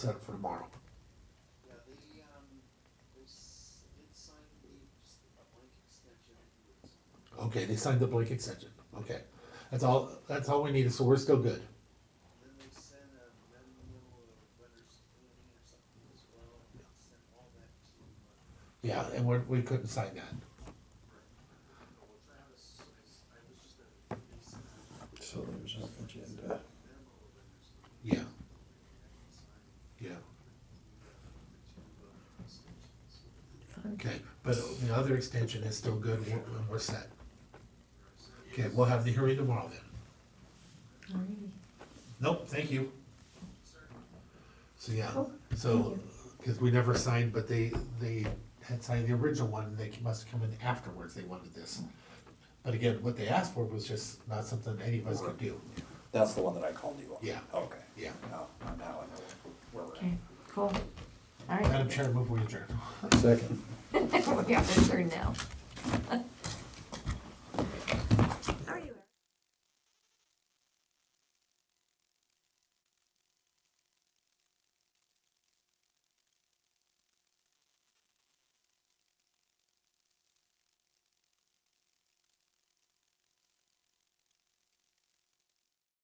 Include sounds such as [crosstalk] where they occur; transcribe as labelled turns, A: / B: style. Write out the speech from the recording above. A: set it for tomorrow.
B: Yeah, they, um, they s- did sign the, a blank extension.
A: Okay, they signed the blank extension. Okay, that's all. That's all we needed. So we're still good.
B: And then they sent a memo of letters planning or something as well, and sent all that to, uh,
A: Yeah, and we're, we couldn't sign that.
B: Oh, Travis, so I s- I was just at, they sent a
C: So there's an agenda.
B: memo of letters.
A: Yeah,
B: Signed
A: yeah.
B: the two, uh, extensions.
A: Okay, but the other extension is still good. We're, we're set. Okay, we'll have the hearing tomorrow then.
D: Alrighty.
A: Nope, thank you. So, yeah,
D: Cool,
A: so, cause we never signed, but they, they had signed the original one, and they must have come in afterwards, they wanted this. But again, what they asked for was just not something any of us could do,
C: That's the one that I called you on?
A: Yeah.
C: Okay.
A: yeah.
C: Now, now I know where we're
D: Okay, cool. All right. [laughs]
A: Madam Chair, move we adjourn.
C: at. Second.
D: We have to turn now.